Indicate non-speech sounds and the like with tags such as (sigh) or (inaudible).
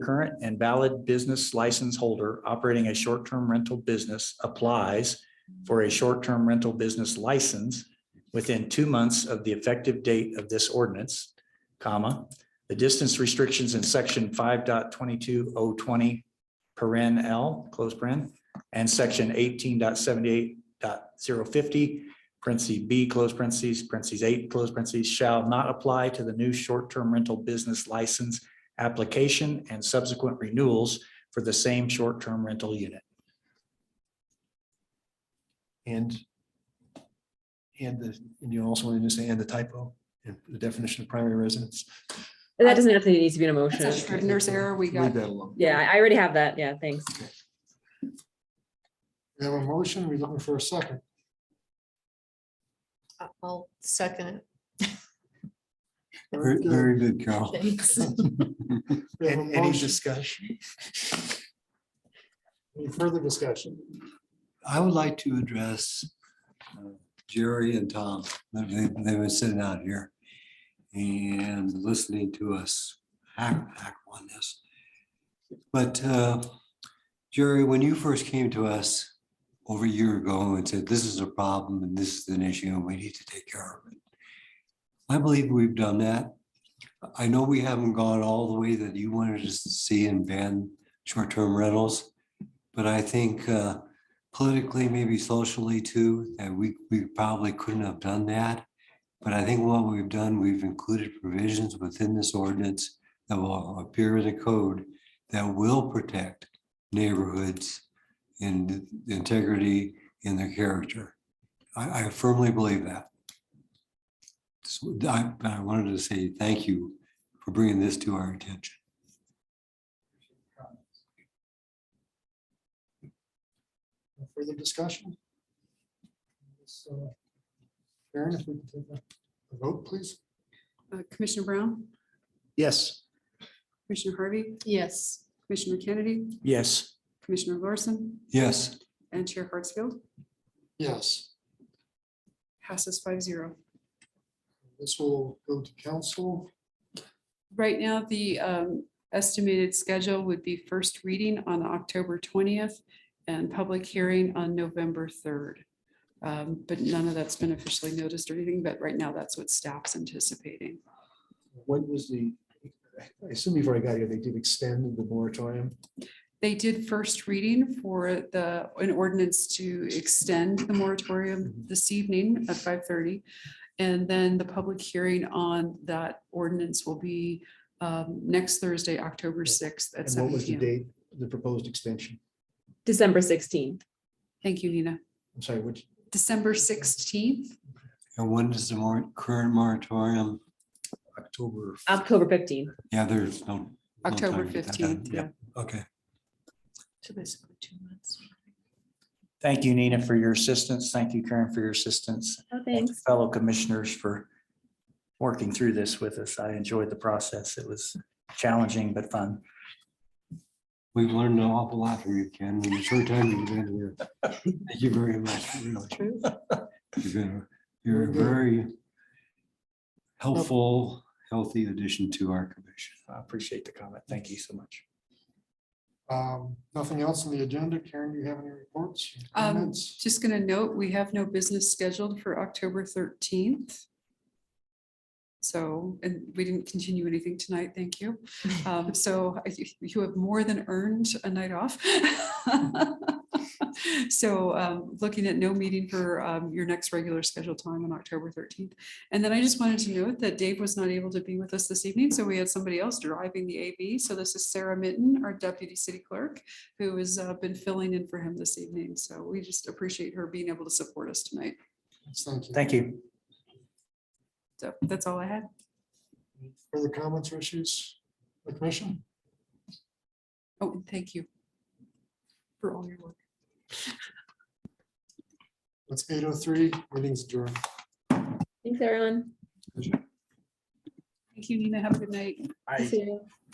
current and valid business license holder operating a short-term rental business applies for a short-term rental business license within two months of the effective date of this ordinance, comma, the distance restrictions in section 5.22020 paren L, close paren, and section 18.78.050 parentheses B, close parentheses, parentheses eight, close parentheses, shall not apply to the new short-term rental business license application and subsequent renewals for the same short-term rental unit. And and the, and you also wanted to say and the typo and the definition of primary residence. And That doesn't necessarily need to be an That's a emotion. Scrivener's error we Leave got. that alone. Yeah, I already have that. Yeah, thanks. We have a motion. We're looking for a second. I'll second Very Very good, Carl. it. Thanks. (laughs) We have a motion. discussion? (laughs) Any further discussion? I would like to address uh, Jerry and Tom. They, they were sitting out here and listening to us hack, hack on this. But uh, Jerry, when you first came to us over a year ago and said, this is a problem and this is an issue and we need to take care of it. I believe we've done that. I know we haven't gone all the way that you wanted us to see and ban short-term rentals. But I think uh, politically, maybe socially too, that we, we probably couldn't have done that. But I think what we've done, we've included provisions within this ordinance that will appear in the code that will protect neighborhoods and the integrity and their character. I, I firmly believe that. So I, I wanted to say thank you for bringing this to our attention. No Further discussion? So, Karen, if we could take a- a vote, please. Uh, Commissioner Brown, Yes. Commissioner Harvey, Yes. Commissioner Kennedy, Yes, Commissioner Larson, Yes, and Chair Hartsfield. Yes. Passes five zero. This will go to council. Right now, the um, estimated schedule would be first reading on October twentieth and public hearing on November third. Um, But none of that's been officially noticed or anything, but right now, that's what staff's anticipating. What was the, I assume before I got here, they did extend the moratorium. They did first reading for the, an ordinance to extend the moratorium Mm-hmm. this evening at five thirty. And then the public hearing on that ordinance will be um, next Thursday, October sixth at And what seven was the p.m. date, the proposed extension? December sixteenth. Thank you, Nina. I'm sorry, which, December sixteenth, and when is the more current moratorium? October? October fifteenth. Yeah, there's no. no time to October get that fifteenth, done. yeah. Okay, So basically two months. thank you, Nina, for your assistance. Thank you, Karen, for your assistance. Oh, Thank you, Fellow commissioners for working through this with us. I enjoyed the process. It was challenging but fun. we've learned an awful lot from you, Ken, in the short time you've been here. Thank you very much, really. You've been, you're a very helpful, healthy addition to our commission. I appreciate the comment. Thank you so much. Um, Nothing else on the agenda. Karen, do you have any reports? Um, comments? just gonna note, we have no business scheduled for October thirteenth. So, and we didn't continue anything tonight, thank you. Um, so I- you- you have more than earned a night off. (laughs) So, um, looking at no meeting for, um, your next regular scheduled time on October thirteenth. And then I just wanted to note that Dave was not able to be with us this evening, so we had somebody else driving the AV. So this is Sarah Mitten, our deputy city clerk who has uh, been filling in for him this evening. So we just appreciate her being able to support us tonight. Thank you. Thank you. So that's all I had. Further comments or issues? The commission? Oh, and thank you for all your work. It's eight oh three, meetings adjourned. Thanks, everyone. Thank you, Nina. Have a good night. See you.